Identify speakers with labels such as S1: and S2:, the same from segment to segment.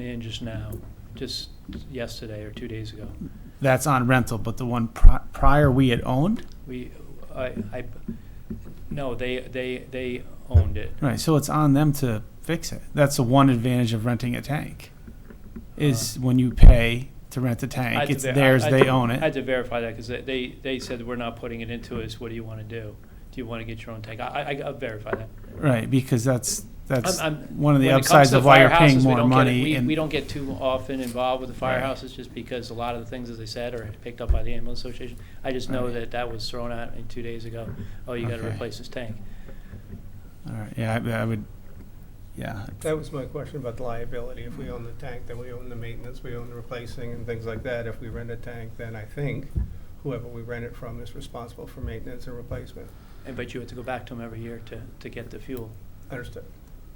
S1: in just now, just yesterday or two days ago.
S2: That's on rental, but the one pri- prior we had owned,
S1: We, I, I, no, they, they, they owned it.
S2: right? So it's on them to fix it. That's the one advantage of renting a tank, is when you pay to rent the
S1: Uh-huh. I had
S2: tank,
S1: to
S2: it's
S1: ver- I-
S2: theirs,
S1: I-
S2: they own
S1: I had
S2: it.
S1: to verify that, because they, they said, we're not putting it into us, what do you want to do? Do you want to get your own tank? I, I, I'll verify that.
S2: Right, because that's, that's
S1: I'm- I'm-
S2: one of the
S1: when it comes
S2: upsides
S1: to
S2: of why you're
S1: firehouses,
S2: paying
S1: we
S2: more
S1: don't get it.
S2: money.
S1: We- We
S2: And
S1: don't get too often involved with the
S2: Right.
S1: firehouses, just because a lot of the things, as I said, are picked up by the ambulance association. I just know
S2: Right.
S1: that that was thrown out in two days ago, oh, you got to
S2: Okay.
S1: replace this tank.
S2: All right, yeah, I I would, yeah,
S3: That was my question about the liability. If we own the tank, then we own the maintenance, we own the replacing and things like that. If we rent a tank, then I think whoever we rent it from is responsible for maintenance and replacement.
S1: And, but you have to go back to them every year to, to get the fuel,
S3: Understood.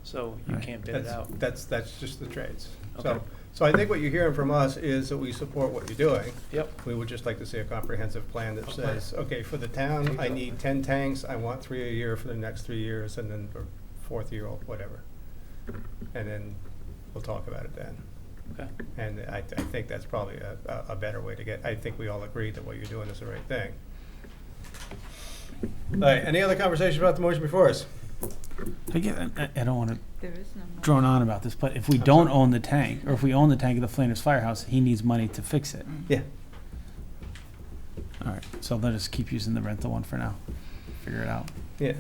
S1: so you
S2: Right.
S1: can't bid it
S3: That's,
S1: out.
S3: that's, that's just the trades.
S1: Okay.
S3: So, so I think what you're hearing from us is that we support what you're doing.
S1: Yep,
S3: We would just like to see a comprehensive plan that
S1: Okay.
S3: says, okay, for the town, I need ten tanks, I want three a year for the next three years, and then or fourth year, or whatever. And then we'll talk about it then.
S1: okay,
S3: And I, I think that's probably a, a- a better way to get, I think we all agree that what you're doing is the right thing. All right, any other conversation about the motion before us?
S2: I get, I I don't want to
S4: There is no. more.
S2: drone on about this, but if we don't own the tank, or if we own the tank at the Flanders Firehouse, he needs money to fix it.
S3: Yeah.
S2: All right, so let us keep using the rental one for now. Figure it out.
S3: Yeah,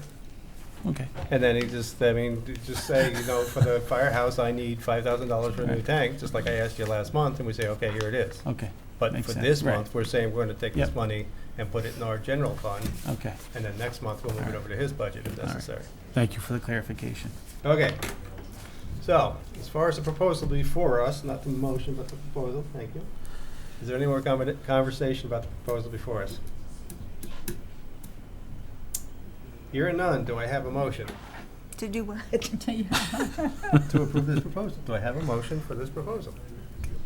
S2: Okay.
S3: and then he just, I mean, d- just say, you know, for the firehouse, I need five thousand dollars for a new
S2: Right.
S3: tank, just like I asked you last month, and we say, okay, here it is.
S2: Okay.
S3: But
S2: makes
S3: for
S2: sense,
S3: this
S2: right.
S3: month, we're saying we're gonna take this
S2: Yep.
S3: money and put it in our general fund,
S2: Okay.
S3: and then next month we'll move it
S2: Alright.
S3: over to his budget if
S2: Alright.
S3: necessary.
S2: Thank you for the clarification.
S3: Okay. So, as far as the proposal before us, not the motion, but the proposal, thank you. Is there any more conver- conversation about the proposal before us? Hearing none, do I have a motion
S4: To do what?
S3: to approve this proposal? Do I have a motion for this proposal?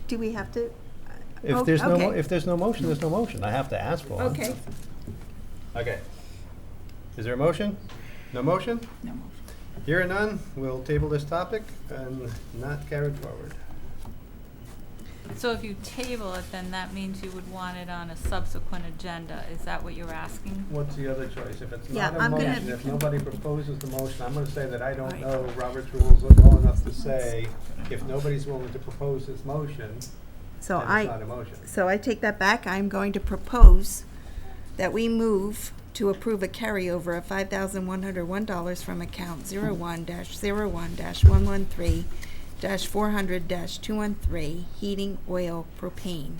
S4: Do we have to?
S3: If
S4: Oh,
S3: there's no, mo-
S4: okay.
S3: if there's no motion, there's no motion. I have to ask for one.
S4: Okay.
S3: Okay. Is there a motion? No motion?
S4: No motion.
S3: Hearing none, we'll table this topic and not carried forward.
S5: So if you table it, then that means you would want it on a subsequent agenda, is that what you're asking?
S3: What's the other choice? If it's
S4: Yeah,
S3: not a
S4: I'm gonna-
S3: motion, if nobody proposes the motion, I'm gonna say that I don't
S4: Right.
S3: know Robert's rules well enough to say, if nobody's willing to propose this motion,
S4: So
S3: then it's not
S4: I,
S3: a motion.
S4: so I take that back. I'm going to propose that we move to approve a carryover of five thousand one hundred one dollars from account zero one dash zero one dash one one three dash four hundred dash two one three, heating oil propane,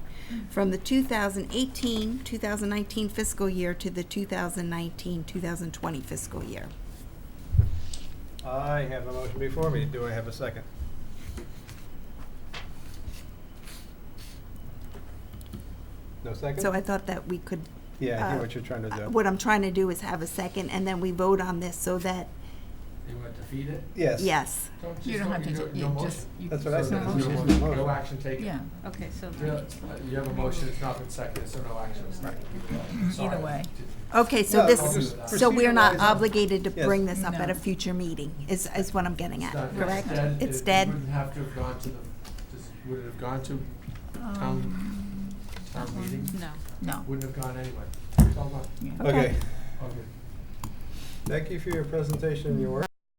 S4: from the 2018-2019 fiscal year to the 2019-2020 fiscal year.
S3: I have a motion before me. Do I have a second? No second?
S4: So I thought that we could
S3: Yeah, I hear
S4: uh,
S3: what you're trying to
S4: Uh,
S3: do.
S4: What I'm trying to do is have a second, and then we vote on this so that,
S6: You want to defeat it?
S3: Yes.
S4: yes.
S7: You don't have to, ta- you just, you.
S3: That's what I
S7: so
S3: said,
S7: no
S3: there's no
S7: motion.
S3: motion.
S6: No action taken.
S7: Yeah,
S5: Okay, so
S6: You know, uh, you have a motion, it's not been seconded, so no action is taken. Sorry.
S7: either way.
S4: Okay, so
S3: No,
S4: this,
S6: just
S4: so we're not
S3: proceduralized.
S4: obligated to
S3: Yes.
S4: bring this up at a
S7: No.
S4: future meeting, is, is what I'm getting at,
S6: It's not-
S4: correct?
S6: dead.
S4: It's
S6: It-
S4: dead.
S6: You wouldn't have to have gone to the, does- would it have gone to town, town meeting?
S5: No.
S7: No,
S6: Wouldn't have gone anyway. It's all gone.
S7: yeah.
S3: Okay.
S6: Okay.
S3: Thank you for your presentation and your work.